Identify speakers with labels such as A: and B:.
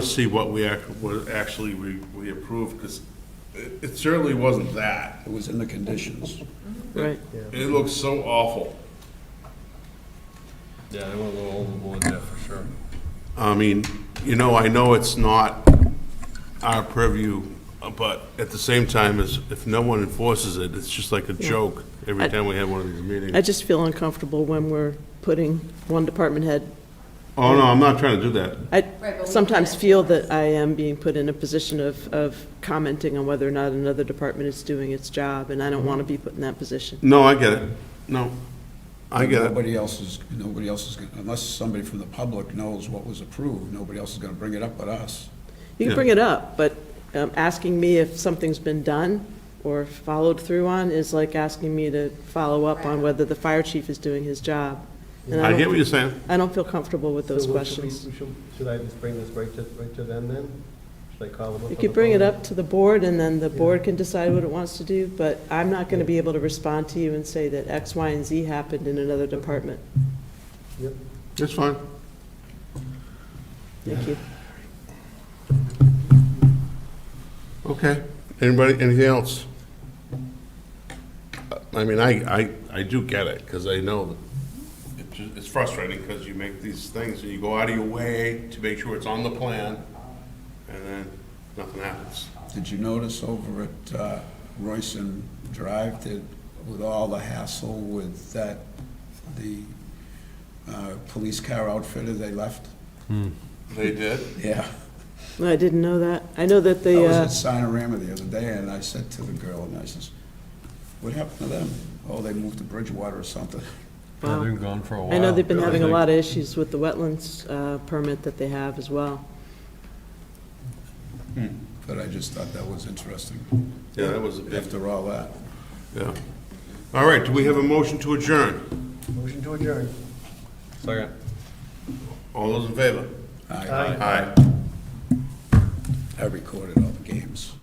A: Let's see what we act, what actually we, we approved, because it it certainly wasn't that.
B: It was in the conditions.
C: Right.
A: It looks so awful.
D: Yeah, they went a little overboard there for sure.
A: I mean, you know, I know it's not our purview, but at the same time, is if no one enforces it, it's just like a joke every
C: I-
A: time we have one of these meetings.
C: I just feel uncomfortable when we're putting one department head.
A: Oh, no, I'm not trying to do that.
C: I
E: but we
C: sometimes
E: can't.
C: feel that I am being put in a position of, of commenting on whether or not another department is doing its job, and I don't want to be put in that position.
A: No, I get it. No, I get it.
B: Nobody else is, nobody else is, gonna- unless somebody from the public knows what was approved, nobody else is going to bring it up but us.
C: You
A: Yeah.
C: can bring it up, but um, asking me if something's been done or followed through on is like asking me to follow up on whether the fire chief is doing his job. And
A: I
C: don't-
A: get what you're saying.
C: I don't feel comfortable with those
F: So what should we-
C: questions.
F: we should- Should I just bring this right to, right to them then? Should I call them up?
C: You
F: on
C: could
F: the
C: bring it
F: phone?
C: up to the board, and then the board can decide what it wants to do, but I'm not going to be able to respond to you and say that X, Y, and Z happened in another department.
F: Yep.
A: It's fine.
C: Thank you.
A: Okay. Anybody, anything else? I mean, I, I, I do get it, because I know that it ju- it's frustrating, because you make these things, and you go out of your way to make sure it's on the plan, and then nothing happens.
B: Did you notice over at uh, Royson Drive that with all the hassle with that, the uh, police car outfitter they left?
A: They did?
B: Yeah.
C: No, I didn't know that. I know that
B: I
C: they,
B: was
C: uh,
B: at Sinorama the other day, and I said to the girl, and I says, what happened to them? Oh, they moved to Bridgewater or something.
D: Yeah,
C: Wow.
D: They've been gone for a while.
C: I know they've been having a lot of issues with the wetlands uh, permit that they have as well.
B: But I just thought that was interesting,
A: Yeah, that was a big,
B: after all that.
A: yeah. All right, do we have a motion to adjourn?
F: Motion to adjourn.
D: Second.
A: All those in favor?
B: I
F: Aye.
A: Aye.
B: I recorded all the games.